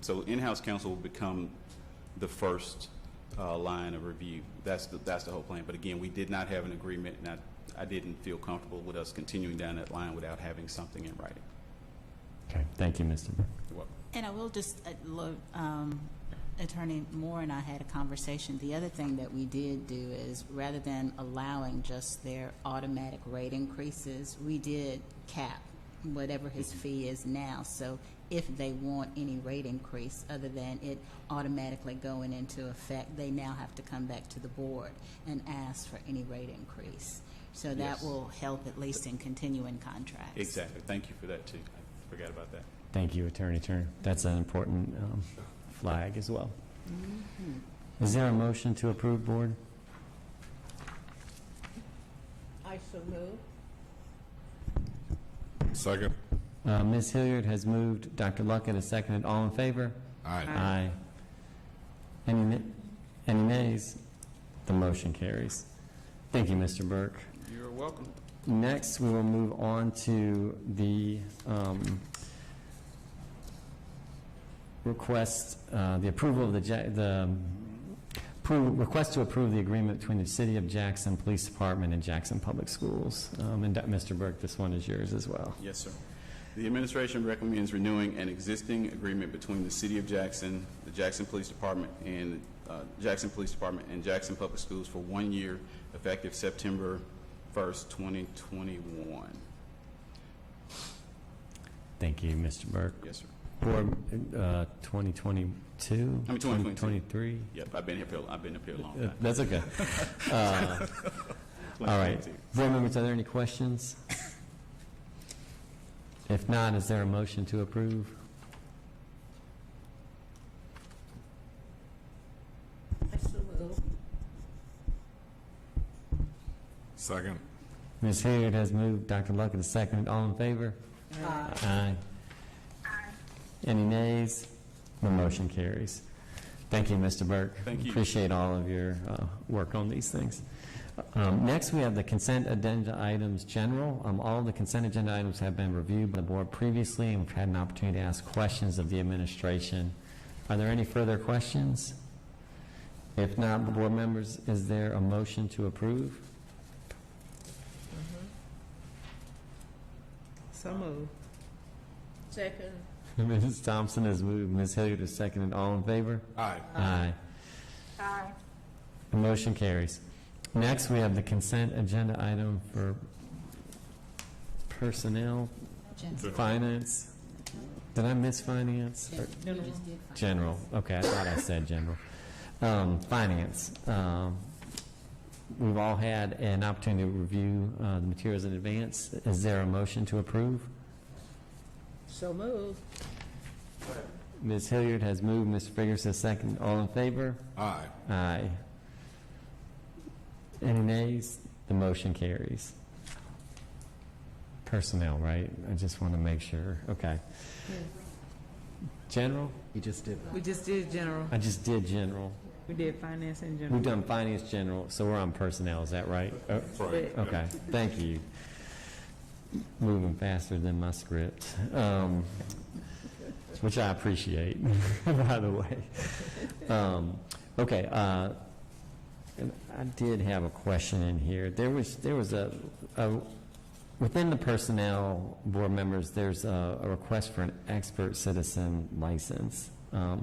So in-house counsel will become the first uh, line of review. That's the, that's the whole plan. But again, we did not have an agreement, and I, I didn't feel comfortable with us continuing down that line without having something in writing. Okay, thank you, Mr. Burke. You're welcome. And I will just, uh, lo- um, Attorney Moore and I had a conversation. The other thing that we did do is, rather than allowing just their automatic rate increases, we did cap whatever his fee is now. So if they want any rate increase other than it automatically going into effect, they now have to come back to the board and ask for any rate increase. So that Yes. will help at least in continuing contracts. Exactly. Thank you for that, too. I forgot about that. Thank you, Attorney Turner. That's an important um, flag as well. Is there a motion to approve, Board? I so move. Second. Uh, Ms. Hilliard has moved, Dr. Luckett has seconded, all in favor? Aye. Aye. Any na- any nays? The motion carries. Thank you, Mr. Burke. You're welcome. Next, we will move on to the um, request, uh, the approval of the, Ja- the um, appro- request to approve the agreement between the City of Jackson Police Department and Jackson Public Schools. Um, And Mr. Burke, this one is yours as well. Yes, sir. The administration recommends renewing an existing agreement between the City of Jackson, the Jackson Police Department, and, uh, Jackson Police Department and Jackson Public Schools for one year effective September 1st, 2021. Thank you, Mr. Burke. Yes, sir. Board, uh, I 2022? mean, 2022. 2023? Yep, I've been here, for- I've been up here a long Uh, time. That's okay. Uh, All right. Board members, are there any questions? If not, is there a motion to approve? I so move. Second. Ms. Hilliard has moved, Dr. Luckett has seconded, all in favor? Aye. Aye. Any nays? The motion carries. Thank you, Mr. Burke. Thank you. Appreciate all of your uh, work on these things. Um, Next, we have the consent agenda items general. Um, All the consent agenda items have been reviewed by the board previously, and we've had an opportunity to ask questions of the administration. Are there any further questions? If not, board members, is there a motion to approve? So move. Second. Mrs. Thompson has moved, Ms. Hilliard has seconded, all in favor? Aye. Aye. The motion carries. Next, we have the consent agenda item for personnel, Jen- finance. Did I miss finance? Or- you just did finance. General, okay, I thought I said general. Um, Finance, um, we've all had an opportunity to review uh, the materials in advance. Is there a motion to approve? So move. Ms. Hilliard has moved, Mr. Figurs has seconded. All in favor? Aye. Aye. Any nays? The motion carries. Personnel, right? I just want to make sure. Okay. General? You just did We just did general. I just did general. We did finance and We've general. done finance general, so we're on personnel, is that right? Oh, Right. Okay, thank you. Moving faster than my script, um, which I appreciate, by the way. Um, Okay, uh, and I did have a question in here. There was, there was a, a- within the personnel board members, there's a a request for an expert citizen license. Um,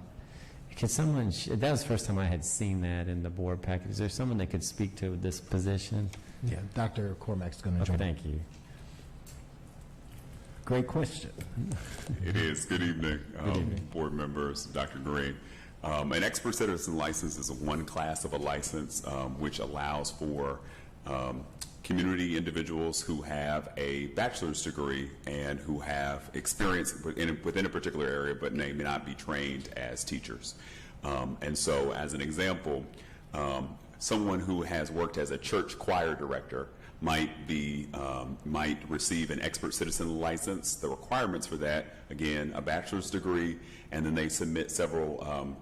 Could someone, sh- that was the first time I had seen that in the board package. Is there someone that could speak to this position? Yeah, Dr. Cormack's going to Okay, jump in. thank you. Great question. It is. Good evening, um, evening. board members, Dr. Green. Um, An expert citizen license is one class of a license um, which allows for um, community individuals who have a bachelor's degree and who have experience within within a particular area but may not be trained as teachers. Um, And so, as an example, um, someone who has worked as a church choir director might be, um, might receive an expert citizen license. The requirements for that, again, a bachelor's degree, and then they submit several um,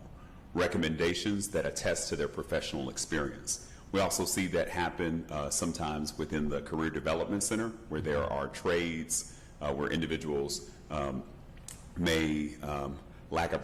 recommendations that attest to their professional experience. We also see that happen uh, sometimes within the Career Development Center, where there are trades, uh, where individuals um, may um, lack a